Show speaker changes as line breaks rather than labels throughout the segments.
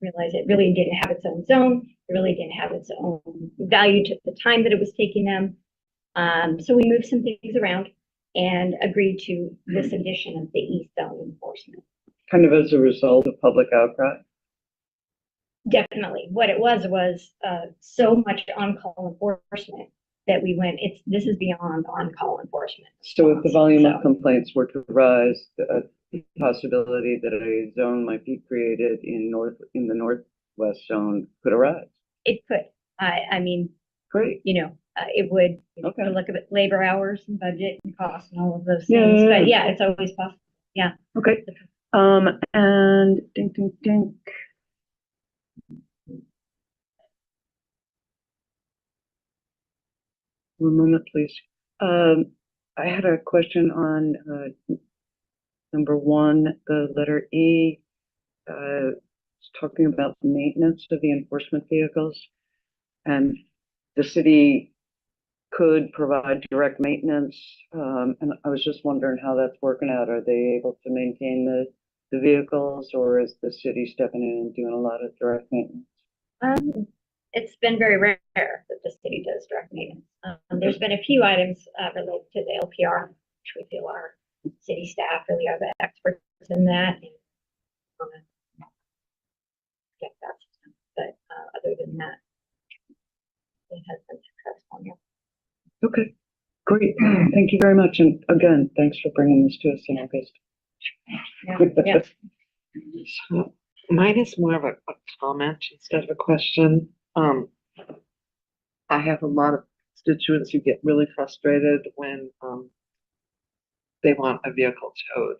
realized it really didn't have its own zone. It really didn't have its own value to the time that it was taking them. Um, so we moved some things around and agreed to this
Mm-hmm.
addition of the east zone enforcement.
kind of as a result of public outcry.
Definitely. What it was, was, uh, so much on-call enforcement that we went, it's, this is beyond on-call enforcement.
So if the volume of
So-
complaints were to rise, the uh, possibility that a zone might be created in north, in the northwest zone could arise.
It could, I, I mean,
Great.
you know, uh, it would, you know,
Okay.
to look at labor hours and budget and cost and all of those
Yeah,
things,
yeah,
but yeah, it's always possible.
Okay. Um, and ding, ding, ding. One moment, please. Um, I had a question on, uh, number one, the letter E. Uh, it's talking about the maintenance of the enforcement vehicles. And the city could provide direct maintenance. Um, and I was just wondering how that's working out. Are they able to maintain the, the vehicles or is the city stepping in and doing a lot of direct maintenance?
Um, it's been very rare that the city does direct maintenance. Um, there's been a few items, uh, related to the LPR, which we feel our city staff really are the experts in that. and, um, Get that, but, uh, other than that. It has been successful, yeah.
Okay, great. Thank you very much. And again, thanks for bringing this to us in August.
Yeah, yeah.
So mine is more of a, a comment instead of a question. Um, I have a lot of constituents who get really frustrated when, um, they want a vehicle towed.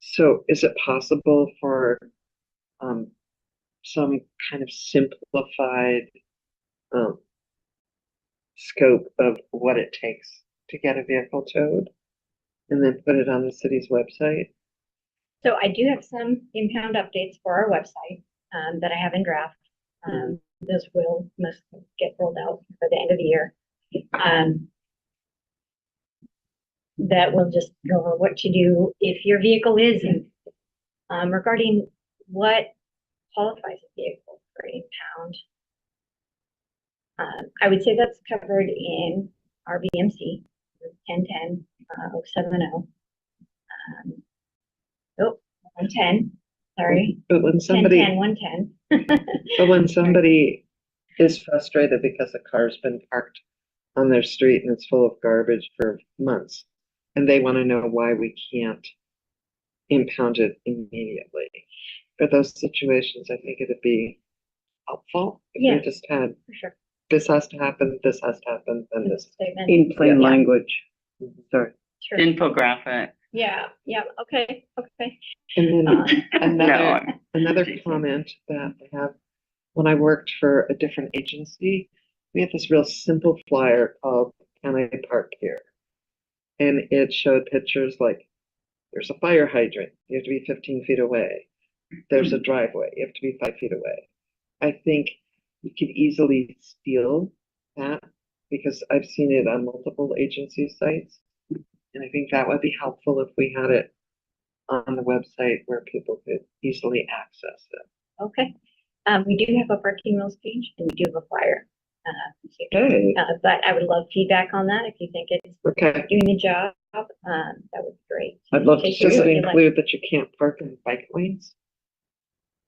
So is it possible for, um, some kind of simplified, um, scope of what it takes to get a vehicle towed? And then put it on the city's website?
So I do have some impound updates for our website, um, that I have in draft. Um, those will must get rolled out by the end of the year. Um. That will just go over what to do if your vehicle is in, um, regarding what qualifies a vehicle for impound. Um, I would say that's covered in RBMC, ten ten, uh, oh seven oh. Um, oh, one ten, sorry,
But when
ten
somebody.
ten, one ten.
But when somebody is frustrated because a car's been parked on their street and it's full of garbage for months, and they want to know why we can't impound it immediately. For those situations, I think it'd be helpful if
Yeah.
we just had,
For sure.
this has to happen, this has to happen, then this. Mm-hmm.
Statement.
In plain
Yeah.
language. Sorry.
Sure.
infographic.
Yeah, yeah, okay, okay.
And then
Uh,
No,
another,
I'm-
another comment that I have, when I worked for a different agency, we had this real simple flyer called Can I Park Here? And it showed pictures like, there's a fire hydrant, you have to be fifteen feet away. There's a driveway, you have to be five feet away. I think you could easily steal that because I've seen it on multiple agency sites. And I think that would be helpful if we had it on the website where people could easily access it.
Okay, um, we do have a parking rules page and we do have a flyer. uh, so-
Okay,
Uh, but I would love feedback on that if you think it's
okay.
doing the job, um, that would be great.
I'd love to
Take
see
Does
your-
it
it.
Sure.
include that you can't park in bike lanes?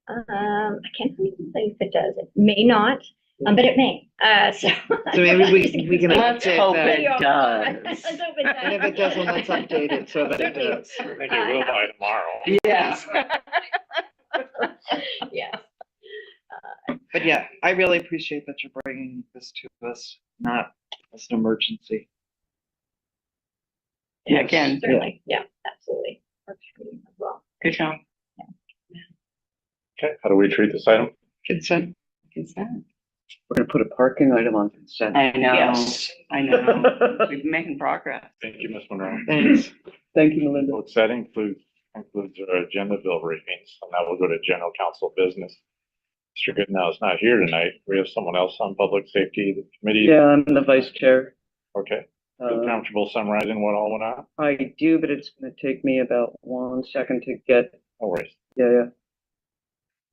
Um, I can't even say if it does, it may not, um, but it may, uh, so.
So maybe we, we can
Let's hope
update
it
that.
does.
Let's hope it does.
And if it doesn't, let's update it so that it
Certainly.
does.
Maybe we'll buy tomorrow.
Yes,
Yeah.
But yeah, I really appreciate that you're bringing this to us, not as an emergency.
Yeah,
Again, yeah.
Certainly, yeah, absolutely. Works for me as well.
good job.
Okay, how do we treat this item?
Consent.
We're gonna put a parking item on consent.
I know, I know. We're making progress.
Thank you, Ms. Monroe.
Thanks.
Thank you, Melinda.
Votes that includes, includes our agenda bill briefings, and now we'll go to general council business. Mr. Goodnow is not here tonight. We have someone else on public safety the committee.
Yeah, I'm the vice chair.
Okay, feel
Uh,
comfortable summarizing what all went on?
I do, but it's gonna take me about one second to get,
No worries.
yeah, yeah.